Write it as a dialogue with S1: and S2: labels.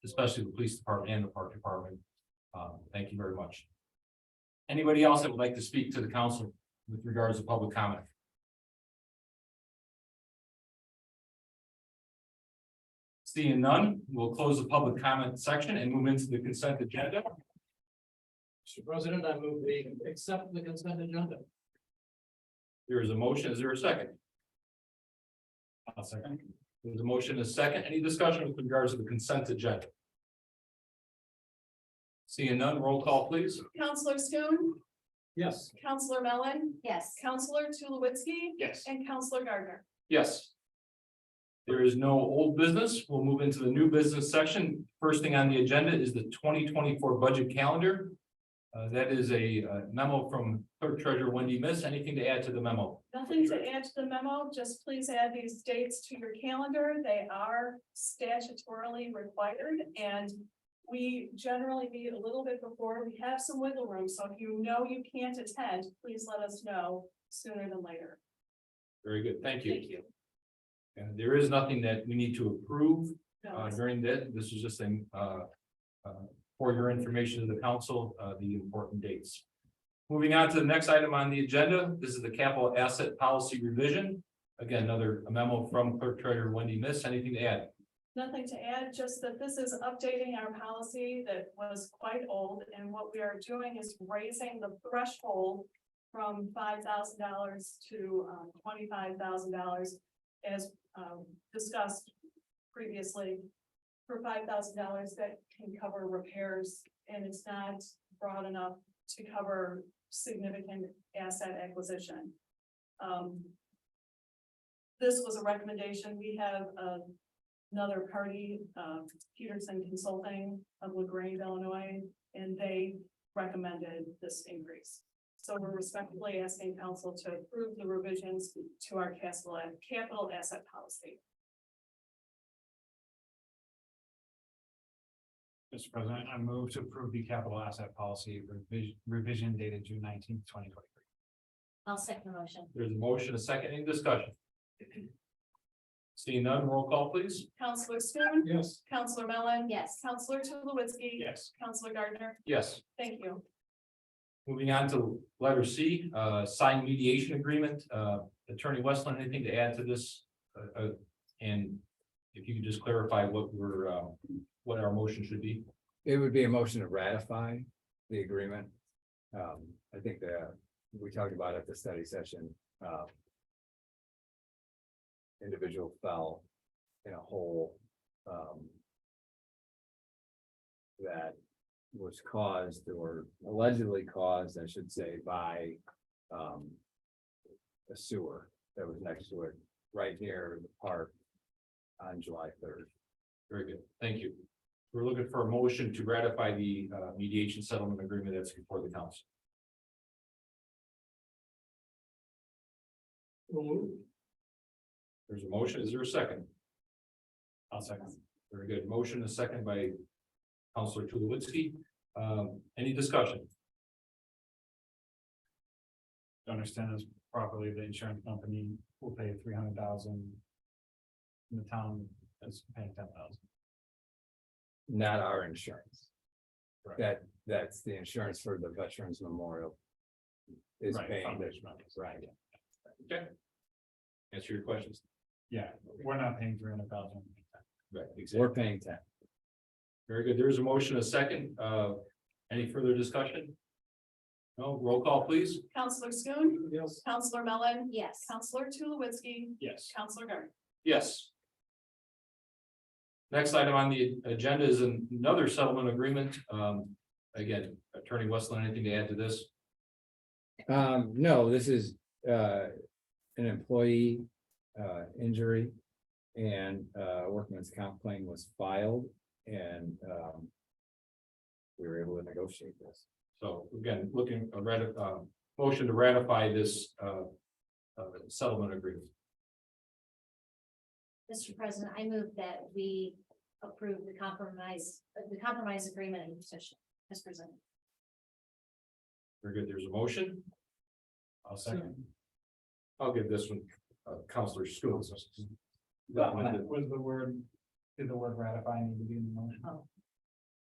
S1: especially the police department and the park department. Um, thank you very much. Anybody else that would like to speak to the council with regards to public comment? Seeing none, we'll close the public comment section and move into the consent agenda.
S2: Mr. President, I move we accept the consent agenda.
S1: There is a motion. Is there a second? A second. There's a motion, a second. Any discussion with regards to the consent agenda? Seeing none, roll call, please.
S3: Counselor Schoen,
S2: Yes.
S3: Counselor Mellon,
S4: Yes.
S3: Counselor Tulowitzki,
S1: Yes.
S3: and Counselor Gardner.
S1: Yes. There is no old business. We'll move into the new business section. First thing on the agenda is the twenty twenty-four budget calendar. Uh, that is a uh, memo from clerk treasurer Wendy Miss. Anything to add to the memo?
S3: Nothing to add to the memo, just please add these dates to your calendar. They are statutorily required and we generally meet a little bit before. We have some wiggle room, so if you know you can't attend, please let us know sooner than later.
S1: Very good. Thank
S3: Thank
S1: you.
S3: you.
S1: And there is nothing that we need to approve.
S3: No,
S1: uh, during that, this is just saying, uh, uh, for your information to the council, uh, the important dates. Moving on to the next item on the agenda, this is the capital asset policy revision. Again, another memo from clerk treasurer Wendy Miss, anything to add?
S3: Nothing to add, just that this is updating our policy that was quite old, and what we are doing is raising the threshold from five thousand dollars to um, twenty-five thousand dollars as um, discussed previously. For five thousand dollars that can cover repairs, and it's not broad enough to cover significant asset acquisition. Um, This was a recommendation. We have uh, a another party, um, Peterson Consulting of LaGrange, Illinois, and they recommended this increase. So we're respectfully asking council to approve the revisions to our capital, capital asset policy.
S2: Mr. President, I move to approve the capital asset policy revision, revision dated June nineteenth, twenty twenty-three.
S4: I'll second the motion.
S1: There's a motion, a second, any discussion? Seeing none, roll call please.
S3: Counselor Schoen,
S2: Yes.
S3: Counselor Mellon.
S4: Yes.
S3: Counselor Tulowitzki.
S2: Yes.
S3: Counselor Gardner,
S1: Yes.
S3: thank you.
S1: Moving on to letter C, uh, signed mediation agreement, uh, Attorney Westland, anything to add to this? Uh, uh, and if you could just clarify what we're, uh, what our motion should be.
S5: It would be a motion to ratify the agreement. Um, I think that we talked about at the study session, um. Individual fell in a hole, um. That was caused or allegedly caused, I should say, by, um. A sewer that was next to it, right near the park on July third.
S1: Very good, thank you. We're looking for a motion to ratify the, uh, mediation settlement agreement that's before the council. There's a motion, is there a second? I'll second. Very good, motion is second by Counselor Tulowitzki. Um, any discussion?
S2: To understand this properly, the insurance company will pay three hundred thousand. And the town is paying ten thousand.
S5: not our insurance.
S2: Right.
S5: That, that's the insurance for the Veterans Memorial. Is
S2: Right,
S5: paying, the-
S2: foundation members.
S5: right,
S1: Answer your questions.
S2: Yeah, we're not paying three hundred thousand.
S1: Right,
S5: we're paying ten.
S1: Very good. There is a motion, a second. Uh, any further discussion? No, roll call, please.
S3: Counselor Schoen,
S2: Yes.
S3: Counselor Mellon,
S4: Yes.
S3: Counselor Tulowitzki,
S2: Yes.
S3: Counselor Gardner.
S1: Yes. Next item on the agenda is another settlement agreement. Um, again, Attorney Westland, anything to add to this?
S5: Um, no, this is, uh, an employee, uh, injury. And, uh, workman's comp claim was filed and, um. We were able to negotiate this.
S1: So again, looking, a rati- uh, motion to ratify this, uh, uh, settlement agreement.
S4: Mr. President, I move that we approve the compromise, uh, the compromise agreement and petition as presented.
S1: Very good. There's a motion.
S2: I'll second.
S1: I'll give this one, uh, Counselor Schoen.
S2: Was the word, did the word ratify need to be in the motion?
S4: Oh,